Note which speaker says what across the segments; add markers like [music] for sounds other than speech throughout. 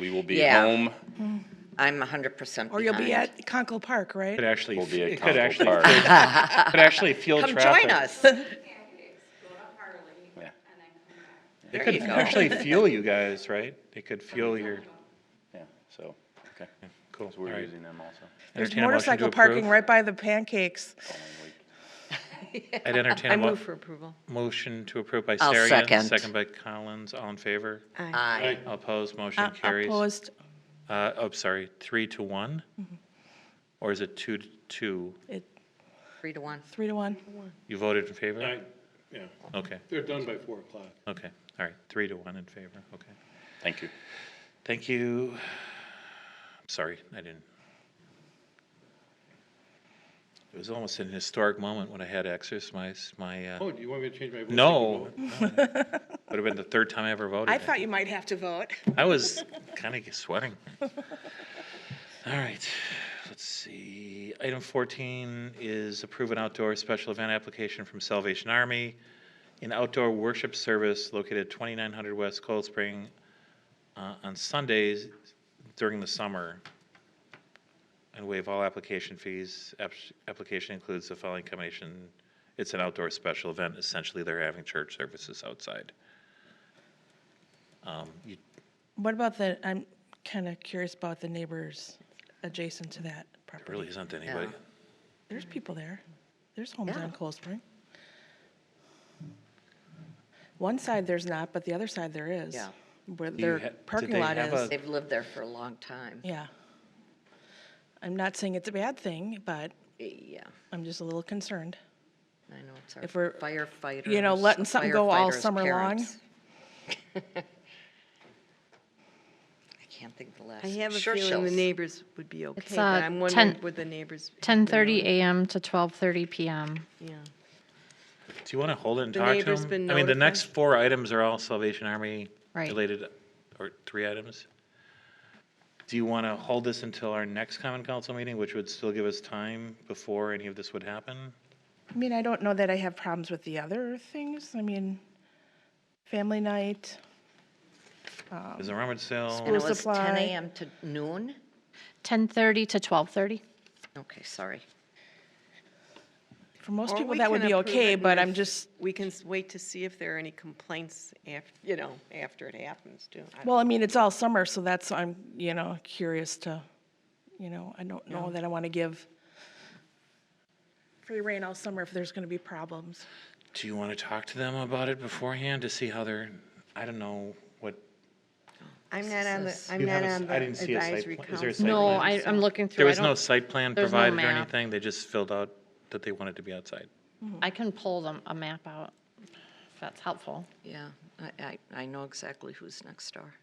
Speaker 1: We will be
Speaker 2: Yeah.
Speaker 1: home.
Speaker 2: I'm hundred percent
Speaker 3: Or
Speaker 2: behind.
Speaker 3: you'll be at Conkle Park, right?
Speaker 4: Could actually,
Speaker 1: We'll be at
Speaker 4: it could
Speaker 1: Conkle
Speaker 4: actually,
Speaker 1: Park.
Speaker 4: field- could actually field
Speaker 2: Come
Speaker 4: traffic.
Speaker 2: join
Speaker 3: [laughs]
Speaker 2: us.
Speaker 1: Yeah.
Speaker 4: It
Speaker 2: There
Speaker 4: could
Speaker 2: you go.
Speaker 4: actually fuel you guys, right? It could fuel your,
Speaker 1: Yeah. So, okay.
Speaker 4: cool.
Speaker 1: So we're
Speaker 4: All right.
Speaker 1: using them also.
Speaker 3: There's
Speaker 4: Entertain a motion to
Speaker 3: motorcycle parking
Speaker 4: approve.
Speaker 3: right by the pancakes.
Speaker 4: I'd entertain
Speaker 5: I
Speaker 4: a mo-
Speaker 5: move for approval.
Speaker 4: motion to approve by
Speaker 2: I'll second.
Speaker 4: Sarian, second by Collins, all in favor?
Speaker 2: Uh, Aye.
Speaker 4: All Opposed, motion
Speaker 3: Op-
Speaker 4: carries.
Speaker 3: Opposed,
Speaker 4: Uh, oh, sorry, three to one? Or is it two to two?
Speaker 3: it,
Speaker 2: Three to one.
Speaker 3: three to one.
Speaker 4: You voted in favor?
Speaker 6: I, yeah,
Speaker 4: Okay,
Speaker 6: they're done by four o'clock.
Speaker 4: okay, all right, three to one in favor, okay.
Speaker 1: Thank you.
Speaker 4: Thank you. Sorry, I didn't. It was almost an historic moment when I had to exercise my, uh,
Speaker 6: Oh, do you want me to change my vote?
Speaker 4: no. no. Would have been the third time I ever voted.
Speaker 3: I thought you might have to vote.
Speaker 4: I was kind of sweating. All right, let's see. Item 14 is approve an outdoor special event application from Salvation Army, an outdoor worship service located at 2900 West Cold Spring uh, on Sundays during the summer, and waive all application fees. App- Application includes the following combination. It's an outdoor special event. Essentially, they're having church services outside. Um, You
Speaker 3: What about the, I'm kind of curious about the neighbors adjacent to that property.
Speaker 4: Really isn't anybody.
Speaker 2: Yeah.
Speaker 3: There's people there. There's homes
Speaker 2: Yeah.
Speaker 3: on Cold Spring. One side there's not, but the other side there is.
Speaker 2: Yeah.
Speaker 3: Where
Speaker 4: you
Speaker 3: their
Speaker 4: ha- did
Speaker 3: parking
Speaker 4: they
Speaker 3: lot
Speaker 4: have
Speaker 3: is.
Speaker 4: a-
Speaker 2: They've lived there for a long time.
Speaker 3: Yeah. I'm not saying it's a bad thing, but
Speaker 2: Yeah,
Speaker 3: I'm just a little concerned.
Speaker 2: I know, it's
Speaker 3: If
Speaker 2: our
Speaker 3: we're,
Speaker 2: firefighters.
Speaker 3: you know, letting something go all
Speaker 2: firefighters'
Speaker 3: summer long.
Speaker 2: parents. [laughs] I can't think of the last.
Speaker 5: I have a
Speaker 2: Sure
Speaker 5: feeling the
Speaker 2: shells.
Speaker 5: neighbors would be okay,
Speaker 7: uh,
Speaker 5: but I'm wondering
Speaker 7: 10
Speaker 5: would the neighbors. have their
Speaker 7: 10:30
Speaker 5: own-
Speaker 7: a.m. to 12:30 p.m.
Speaker 5: Yeah.
Speaker 4: Do you want to hold it and
Speaker 5: The
Speaker 4: talk to
Speaker 5: neighbor's
Speaker 4: them?
Speaker 5: been
Speaker 4: I mean, the
Speaker 5: notified?
Speaker 4: next four items are all Salvation Army
Speaker 7: Right.
Speaker 4: related, or three items. Do you want to hold this until our next common council meeting, which would still give us time before any of this would happen?
Speaker 3: I mean, I don't know that I have problems with the other things. I mean, family night,
Speaker 7: Um,
Speaker 4: Is the rummage
Speaker 2: And
Speaker 4: sale,
Speaker 3: School-
Speaker 2: it was ten
Speaker 3: supply.
Speaker 2: AM to noon?
Speaker 7: 10:30 to 12:30.
Speaker 2: Okay, sorry.
Speaker 3: for most
Speaker 5: Or
Speaker 3: people,
Speaker 5: we
Speaker 3: that would
Speaker 5: can
Speaker 3: be
Speaker 5: approve it
Speaker 3: okay,
Speaker 5: and
Speaker 3: but I'm
Speaker 5: if-
Speaker 3: just,
Speaker 5: We can s- wait to see if there are any complaints af, you know, after it happens too. I don't-
Speaker 3: well, I mean, it's all summer, so that's, I'm, you know, curious to, you know, I don't know that I want to give free rein all summer if there's going to be problems.
Speaker 4: do you want to talk to them about it beforehand to see how they're, I don't know what.
Speaker 5: I'm not on the, I'm
Speaker 4: You
Speaker 5: not
Speaker 4: haven't
Speaker 5: on
Speaker 4: s- I
Speaker 5: the
Speaker 4: didn't see a site
Speaker 5: advisory
Speaker 4: plan. Is there a
Speaker 5: council.
Speaker 4: site
Speaker 7: No,
Speaker 4: plan?
Speaker 7: I, I'm looking through.
Speaker 4: There
Speaker 7: I
Speaker 4: was no
Speaker 7: don't-
Speaker 4: site plan
Speaker 7: there's no
Speaker 4: provided or
Speaker 7: map.
Speaker 4: anything, they just filled out that they wanted to be outside.
Speaker 7: I can pull them a map out. If that's helpful.
Speaker 2: Yeah, I, I, I know exactly who's next door.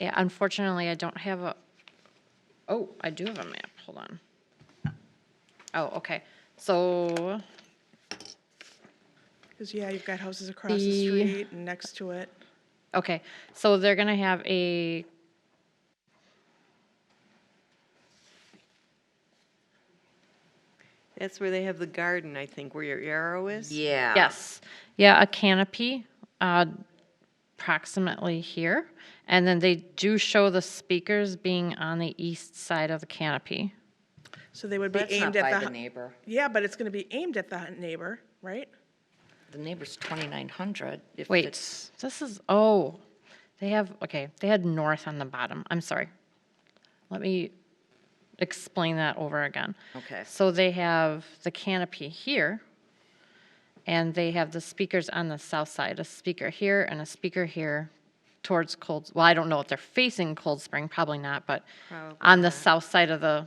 Speaker 7: Yeah, unfortunately, I don't have a. Oh, I do have a map. Hold on. Oh, okay. So
Speaker 3: Because, yeah, you've got houses across the
Speaker 7: The-
Speaker 3: street and next to it.
Speaker 7: Okay, so they're gonna have a.
Speaker 5: That's where they have the garden, I think, where your arrow is.
Speaker 2: Yeah.
Speaker 7: Yes, yeah, a canopy, uh, approximately here. And then they do show the speakers being on the east side of the canopy.
Speaker 3: So they would be
Speaker 2: That's not
Speaker 3: aimed at
Speaker 2: by
Speaker 3: the,
Speaker 2: the
Speaker 3: hu-
Speaker 2: neighbor.
Speaker 3: yeah, but it's going to be aimed at the neighbor, right?
Speaker 2: The neighbor's twenty-nine hundred. If it's
Speaker 7: Wait, this is, oh, they have, okay, they had north on the bottom. I'm sorry. Let me explain that over again.
Speaker 2: Okay.
Speaker 7: So they have the canopy here, and they have the speakers on the south side, a speaker here and a speaker here towards Cold, well, I don't know if they're facing Cold Spring, probably not, but on the south side of the,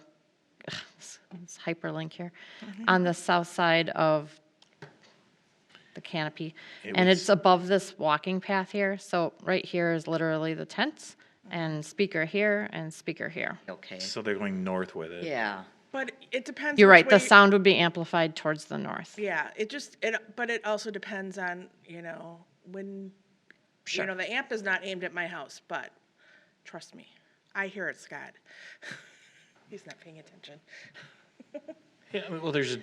Speaker 7: it's hyperlink here, on the south side of the canopy. And it's above this walking path here, so right here is literally the tents, and speaker here and speaker here.
Speaker 2: Okay,
Speaker 4: So they're going north with it.
Speaker 2: yeah.
Speaker 3: But it depends.
Speaker 7: You're
Speaker 3: which
Speaker 7: right, the
Speaker 3: way-
Speaker 7: sound would be amplified towards the north.
Speaker 3: Yeah, it just, it, but it also depends on, you know, when, you know, the amp is not aimed at my house, but trust me, I [laughs] hear it, Scott. He's not paying attention.
Speaker 4: Yeah, well, there's a